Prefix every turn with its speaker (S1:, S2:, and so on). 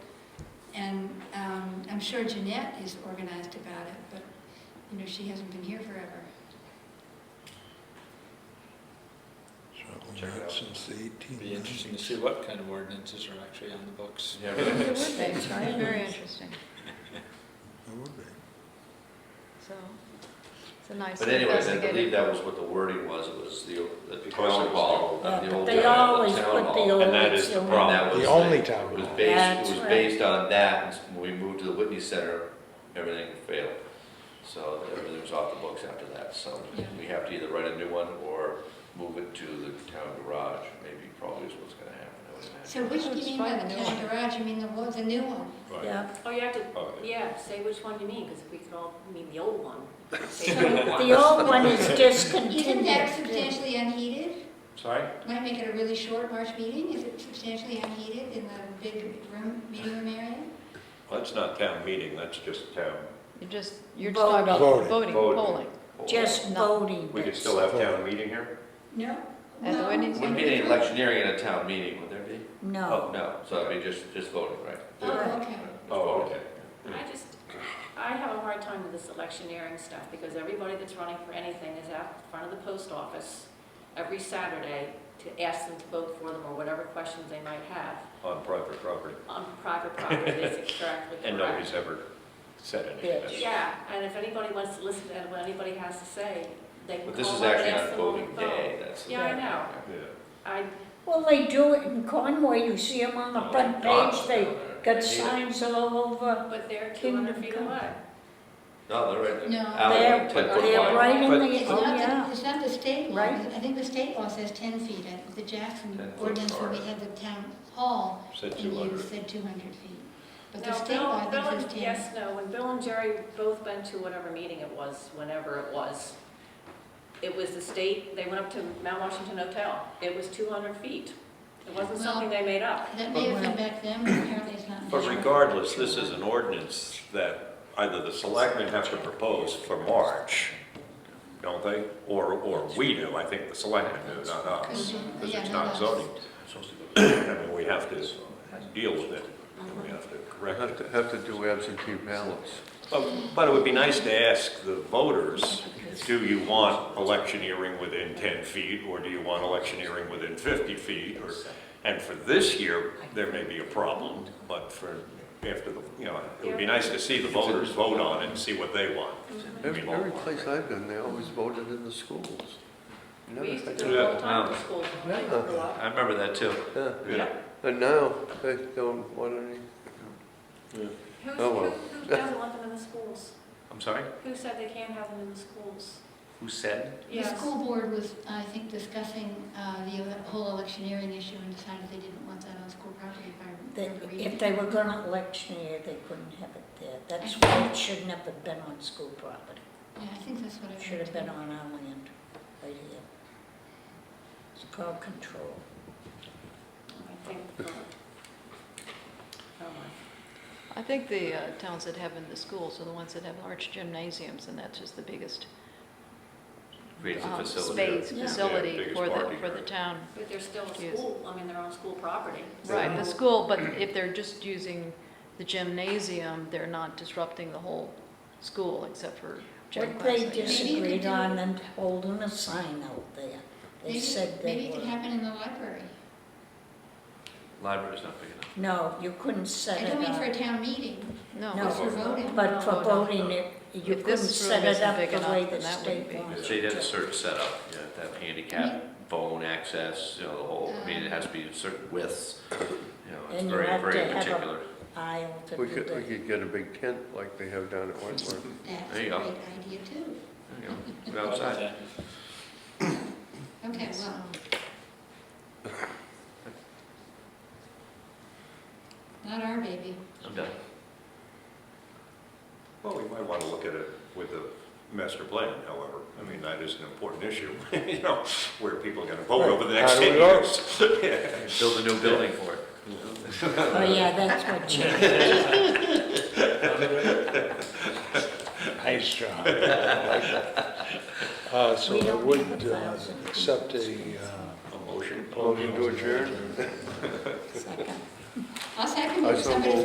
S1: And um, I'm sure Jeanette is organized about it, but, you know, she hasn't been here forever.
S2: Certainly
S3: Check it
S2: not
S3: out.
S2: since the eighteen
S4: Be interesting to
S2: nineties.
S4: see what kind of ordinances are actually on the books.
S3: Yeah.
S5: It would be, right?
S6: Very interesting,
S2: It would be.
S6: so, it's a nice
S3: But anyways, I believe
S6: investigative.
S3: that was what the wording was, it was the, the
S7: Of course it
S3: town
S7: was.
S3: hall,
S5: Yeah,
S3: the
S5: but
S3: old,
S5: They
S3: town-
S5: always
S3: the
S5: put
S3: town
S5: the
S3: hall.
S5: old.
S7: And that is the
S5: silver-
S7: problem.
S3: And that was
S2: The only
S3: It
S2: town
S3: was
S2: hall.
S3: based,
S5: That's
S3: it was
S5: right.
S3: based on that, and s- when we moved to the Whitney Center, everything failed. So everything was off the books after that, so
S1: Yeah.
S3: we have to either write a new one or move it to the town garage, maybe probably is what's gonna happen, I would imagine.
S1: So which do
S6: Let's
S1: you mean by
S6: find
S1: the
S6: a new
S1: town garage? You mean the one, the new one?
S7: Right.
S5: Yeah,
S8: Oh, you have to,
S7: Oh, yeah.
S8: yeah, say which one you mean, because we could all mean the old one. Say the new one.
S5: the old one is
S1: Isn't
S5: discontinued.
S1: that substantially unheated?
S3: Sorry?
S1: Might make it a really short March meeting. Is it substantially unheated in the big room, meeting room area?
S7: That's not town meeting, that's just town.
S6: You're just, you're just
S5: Voting.
S6: talking about
S2: Voting.
S6: voting,
S7: Voting.
S6: polling.
S5: Just voting.
S7: We could
S5: that's-
S7: still have town meeting here?
S1: No?
S6: At the
S1: No.
S6: Whitney
S3: Wouldn't be any electioneering in a town meeting, would there be?
S5: No.
S3: No, so it'd be just, just voting, right?
S1: Oh, okay.
S7: Oh, okay.
S8: I just, I have a hard time with this electioneering stuff, because everybody that's running for anything is out in front of the post office every Saturday to ask them to vote for them, or whatever questions they might have,
S7: On private property.
S8: on private property, is it correct?
S7: And nobody's ever said anything. That's-
S8: Yeah, and if anybody wants to listen to what anybody has to say, they can
S3: But
S8: call
S3: this is
S8: up and
S3: actually
S8: ask
S3: on
S8: them on the
S3: voting
S8: phone.
S3: day, that's. the
S8: Yeah, I
S3: thing.
S8: know.
S7: Yeah.
S8: I
S5: Well, they do it in Conway, you see them on the
S3: Oh,
S5: front page, they got signs all over.
S8: But they're
S5: Kingdom
S8: 200 feet
S5: come.
S8: away.
S3: No, they're right.
S1: No.
S3: Alley,
S5: They're,
S3: ten foot
S5: they're
S3: wide.
S5: right in
S7: But-
S5: the,
S1: It's
S5: oh,
S1: not, the-
S5: yeah.
S1: it's not the state law.
S5: Right.
S1: I think the state law says 10 feet. I- The Jackson
S3: 10 foot
S1: ordinance when we
S3: card.
S1: had the town hall,
S7: Said
S1: and you
S7: 200.
S1: said 200 feet. But the
S8: No,
S1: state
S8: Bill-
S1: law, I
S8: Bill
S1: think,
S8: and-
S1: says 10.
S8: Yes, no, when Bill and Jerry both went to whatever meeting it was, whenever it was, it was the state, they went up to Mount Washington Hotel. It was 200 feet. It wasn't
S1: Well-
S8: something they made up.
S1: That may have been back then, but apparently it's not.
S7: But
S1: now.
S7: regardless, this is an ordinance that either the selectmen have to propose for March, don't they? Or, or we do, I think the selectmen do, not us, because it's not zoning. I mean, we have to deal with it, and we have to correct it.
S3: to, have to do absentee ballots.
S7: But but it would be nice to ask the voters, do you want electioneering within 10 feet, or do you want electioneering within 50 feet? Or And for this year, there may be a problem, but for, after the, you know, it would be nice to see the voters vote on it and see what they want.
S9: Every,
S7: We all
S9: every
S7: want,
S9: place
S7: right?
S9: I've been, they always voted in the schools. You never
S8: We used to
S9: think
S8: do it all the time
S3: Yeah.
S8: in school. when I
S9: Yeah.
S8: grew up.
S3: I remember that too.
S9: of- yeah.
S7: Yeah.
S9: And now, they don't want any,
S8: Who's-
S9: Oh,
S8: Who
S9: well.
S8: who doesn't want them in the schools?
S3: I'm sorry?
S8: Who said they can't have them in the schools?
S3: Who said?
S1: The
S8: Yes.
S1: school board was, I think, discussing uh, the ele- whole electioneering issue and decided they didn't want that on school property if I
S5: They-
S1: remember reading.
S5: If they were gonna electioneer, they couldn't have it there. That's why it shouldn't have been on school property.
S1: Yeah, I think that's what I
S5: It
S1: read.
S5: should have
S1: too.
S5: been on our land, right here. It's called control.
S8: I think, oh, my.
S6: I think the uh, towns that have in the schools are the ones that have large gymnasiums, and that's just the biggest
S3: Creates a
S6: um,
S3: facility.
S6: space,
S5: Yeah.
S7: Yeah,
S6: facility
S7: biggest
S6: for the,
S7: parking
S6: for the
S7: area.
S6: town.
S8: But they're still a
S6: Yes.
S8: school, I mean, they're on school property.
S6: Right, the
S8: So-
S6: school, but if they're just using the gymnasium, they're not disrupting the whole school except for gym
S5: What they
S6: class. I guess.
S5: disagreed
S1: do-
S5: on and hold them a sign out there. They
S1: Maybe-
S5: said
S1: Maybe
S5: they
S1: it could
S5: were.
S1: happen in the library.
S3: Library's not big enough.
S5: No, you couldn't set
S1: I
S5: it
S1: don't mean for a
S5: up.
S1: town meeting,
S6: No,
S5: No.
S1: just for voting.
S5: But for
S6: No, no.
S5: voting it, you
S6: If
S5: couldn't
S6: this
S5: set
S6: room
S5: it
S6: isn't
S5: up
S6: big
S5: the
S6: enough,
S5: way
S6: then
S5: the
S6: that wouldn't
S5: state
S6: be.
S5: wanted.
S3: So you'd have a
S5: it.
S3: certain setup, you have to have handicap, phone access, you know, the whole, I mean, it has to be certain widths, you know, it's
S5: And you
S3: very,
S5: have
S3: very
S5: to have a-
S3: particular.
S5: Aisle to
S9: we
S5: do
S9: could, we
S5: that.
S9: could get a big tent like they have down at Wentworth.
S1: That's
S3: There
S1: a great
S3: you go.
S1: idea too.
S3: You know, it's Outside.
S1: Okay, well. Not our baby.
S3: I'm done.
S7: Well, we might want to look at it with the master plan, however. I mean, that is an important issue, you know, where people are going to vote over the next
S2: How do we
S7: 10
S2: vote?
S7: years.
S3: Build a new building for it.
S5: Oh, yeah, that's what she,
S2: Nice job. Uh, so
S5: We
S2: I
S5: don't
S2: would
S5: have a
S2: uh,
S5: thousand.
S2: accept a, uh,
S7: A motion.
S9: Motion to adjourn?
S5: second.
S1: I'll second
S9: I
S1: if
S9: so
S1: somebody
S9: move.